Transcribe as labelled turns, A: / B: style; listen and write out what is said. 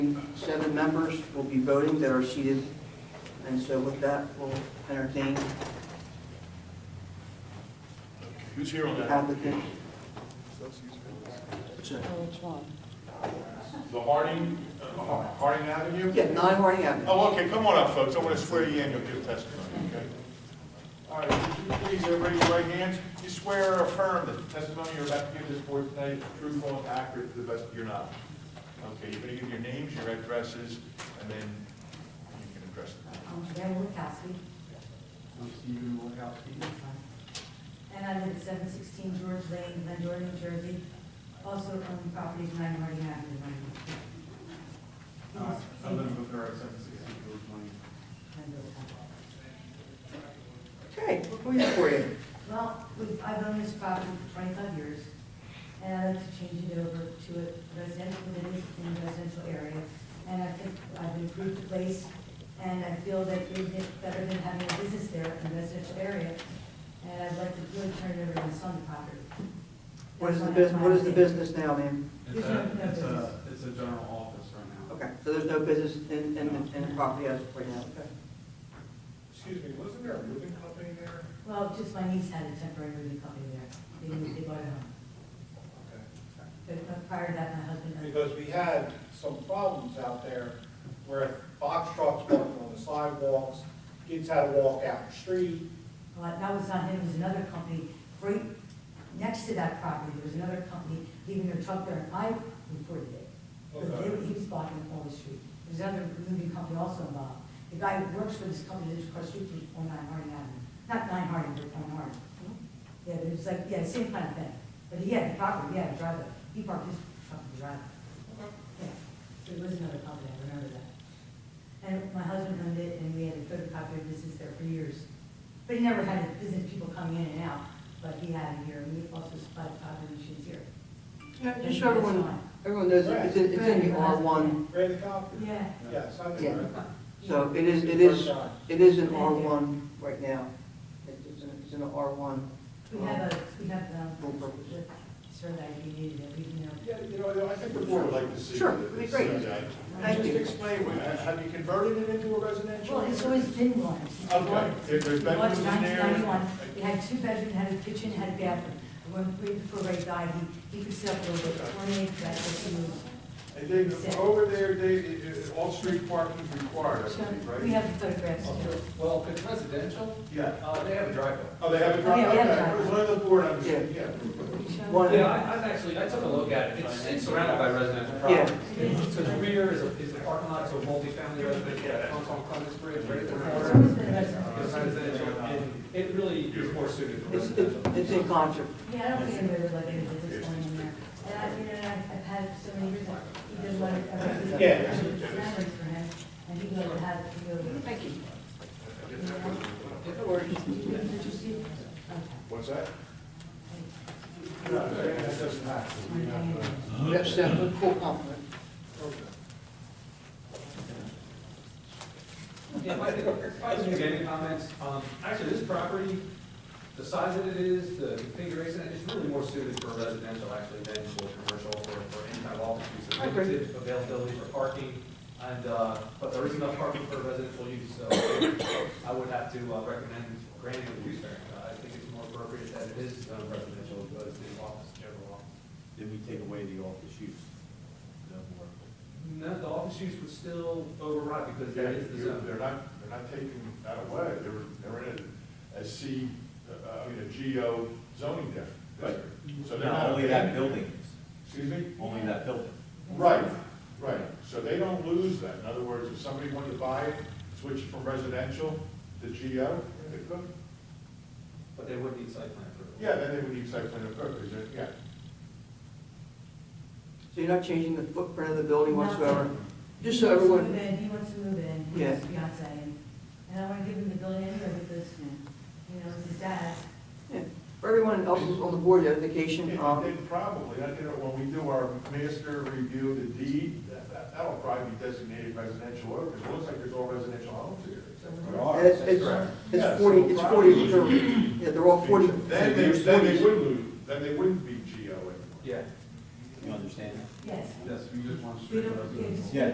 A: seven members will be voting that are seated. And so with that, we'll entertain
B: Who's here on
A: the
B: that?
A: applicant.
B: The Harding, uh, Har- Harding Avenue?
A: Yeah, nine Harding Avenue.
B: Oh, okay, come on up, folks, I want to swear you in, you'll give testimony, okay? All right, would you please, everybody, raise your right hands? You swear or affirm that the testimony you're about to give this board tonight is truthful and accurate to the best of your knowledge? Okay, you're going to give your names, your addresses, and then you can address them.
C: I'm Karen Wilkowski,
D: I'm Stephen Wilkowski.
C: and I live at seven sixteen George Lane, Glendora, New Jersey. Also own properties nine Harding Avenue.
D: Uh,
C: Glendora.
D: I live with her at seven sixty George Lane.
A: Okay, what can we do for you?
C: Well, we've- I've owned this property for twenty-five years, and I'd like to change it over to a residential, within in a residential area. And I think I've improved the place, and I feel that it's better than having a business there in a residential area. And I'd like to really turn it over to my son property.
A: What is the
C: That's
A: business,
C: my
A: what is the
C: idea.
A: business now, ma'am?
D: It's
C: There's
D: a,
C: no- no
D: it's a,
C: business.
D: it's a general office right now.
A: Okay, so there's no business in, in, the- in the property as of right now, okay?
B: Excuse me, wasn't there a moving company there?
C: Well, just my niece had a temporary moving company there. They moved, they bought a home. But but prior to that, my husband owned.
E: Because we had some problems out there where box trucks parked on the sidewalks, kids had to walk out the street.
C: Well, that was not him, it was another company, right next to that property, there was another company leaving their truck there, and I reported it. Because they- he was blocking all the street. There's another moving company also involved. The guy who works for this company lives across the street from on nine Harding Avenue, not nine Harding, but on Harding. Yeah, but it was like, yeah, same kind of thing, but he had the property, yeah, the driveway, he parked his truck in the driveway. Yeah, so it was another company, I remember that. And my husband owned it, and we had a photocopier business there for years. But he never had business people coming in and out, but he had it here, and we also supplied copy machines here.
A: Yeah, just so everyone, everyone knows, it's in, it's in the R one,
E: Read the copy?
C: Yeah.
E: Yes, I
A: Yeah.
E: did.
A: so it is, it is, it is in
C: Thank
A: R
C: you.
A: one right now. It's- It's in, it's in the R one.
C: We have a, we have um,
A: Full
C: the
A: purpose.
C: the survey we needed, that we, you know.
B: Yeah, you know, I think the board would like to see.
A: Sure, it'd be great.
B: this, uh,
A: Thank
B: Just
A: you.
B: explain, what- have you converted it into a residential?
C: Well, it's always been one.
B: Okay, if there's
C: It
B: bedrooms
C: was
B: in
C: nineteen
B: there.
C: ninety-one, it had two bedrooms, had a kitchen, had a bathroom. When, way before Ray died, he, he could sit up a little bit, twenty-eight, that's what he moved.
B: And then over there, they, it- it- all street parking is required, I
C: So
B: believe,
C: we
B: right?
C: have the photographs too.
F: Well, if it's residential,
B: Yeah.
F: uh, they have a driveway.
B: Oh, they have a
C: Oh,
B: driveway,
C: yeah, we have a
B: okay, one of the board, I'm sure, yeah.
C: Can you show them?
A: One,
F: Yeah, I, I've actually, I took a look at it, it's it's surrounded by residential properties. So the rear is a, is the parking lot, so multifamily residential, that fronts on Clemens Bridge, right at the
C: It's
F: corner.
C: always been a residence.
F: It's residential, and it really is more suited for
A: it's, it's
F: residential.
A: it's in concert.
C: Yeah, I don't think anybody would like it if it's one in there. And I, you know, I've, I've had so many years, like, he does like, I've
E: Yeah.
C: memories for him, and he would have, he would. Thank you. Okay.
B: What's that?
A: Yes, that's a cool compliment.
F: Yeah, if I could- if I could make any comments, um, actually, this property, the size that it is, the configuration, it's really more suited for residential, actually, than for commercial or for any kind of office use. There's
A: I agree.
F: limited availability for parking, and, uh, but there is enough parking for residential use, so I would have to uh, recommend granting a use variance. Uh, I think it's more appropriate that it is zone residential, but it's the office, general office.
G: Then we take away the office use. No more.
F: No, the office use would still override, because that is the
B: They're
F: zone.
B: they're not, they're not taking that away, they're, they're in a, a C, uh, I mean, a GO zoning district.
G: Right.
B: So they're
G: Not
B: not.
G: only that building,
B: Excuse me?
G: only that building.
B: Right, right, so they don't lose that, in other words, if somebody wanted to buy it, switch it from residential to GO, they could.
F: But they would need site plan approval.
B: Yeah, then they would need site plan approval, is it? yeah.
A: So you're not changing the footprint of the building
C: No.
A: whatsoever? Just so everyone,
C: He wants to move in, he
A: Yeah.
C: wants to move in, his fiance, and, and I wanna give him the building anyway because, you know, it's his dad.
A: for everyone else who's on the board, the education,
B: And
A: um,
B: then probably, I you know, when we do our master review of the deed, that- that, that'll probably be designated residential over, because it looks like there's all residential homes here.
G: There
A: and it's,
G: that's correct.
A: it's,
B: Yeah,
A: it's forty,
B: so
A: it's forty,
B: probably-
A: they're, yeah, they're all forty.
B: Then they, then they would lose, then they wouldn't be GO anymore.
F: Yeah.
G: You understand?
C: Yes.
D: Yes, we just want to.
C: We don't, yeah, just-
G: Yeah,